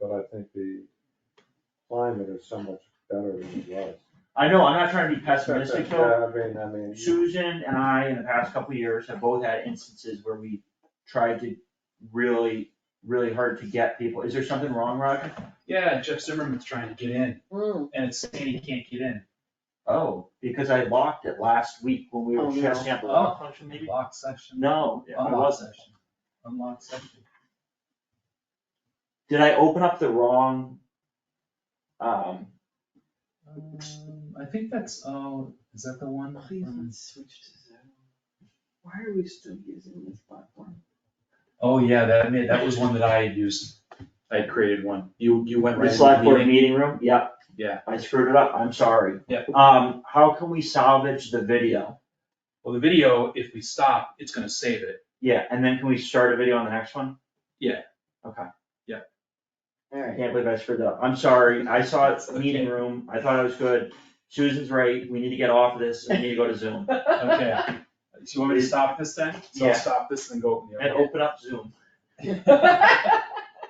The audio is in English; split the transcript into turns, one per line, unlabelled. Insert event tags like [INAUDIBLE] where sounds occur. but I think the climate is so much better than it was.
I know, I'm not trying to be pessimistic though,
Yeah, I mean, I mean, you-
Susan and I, in the past couple of years, have both had instances where we tried to really, really hard to get people, is there something wrong, Roger?
Yeah, Jeff Zimmerman's trying to get in,
Mm,
and it's saying he can't get in.
Oh, because I locked it last week when we
Oh,
were
no.
checking out the
Oh.
lock function, maybe?
Lock section.
No, it
Unlock
wasn't,
section. Unlock section.
did I open up the wrong? Um,
Um, I think that's, oh, is that the one?
please
Mm-hmm.
let's switch to Zoom. Why are we still using this platform?
Oh, yeah, that, made- that was one that I had used. I had created one. You, you went right
the
into the
select board
meeting.
meeting room, yep.
Yeah.
I screwed it up, I'm sorry.
Yep.
Um, how can we salvage the video?
Well, the video, if we stop, it's gonna save it.
Yeah, and then can we start a video on the next one?
Yeah.
Okay. I
Alright,
can't believe I screwed up. I'm sorry. I saw it,
That's okay.
meeting room. I thought it was good. Susan's right. We need to get off of this. and We need to go to Zoom. [LAUGHS]
Okay. Do you want me to stop this then? So
Yeah.
I'll stop this and then go open the
And
other. [LAUGHS]
[LAUGHS]
open up Zoom.
one.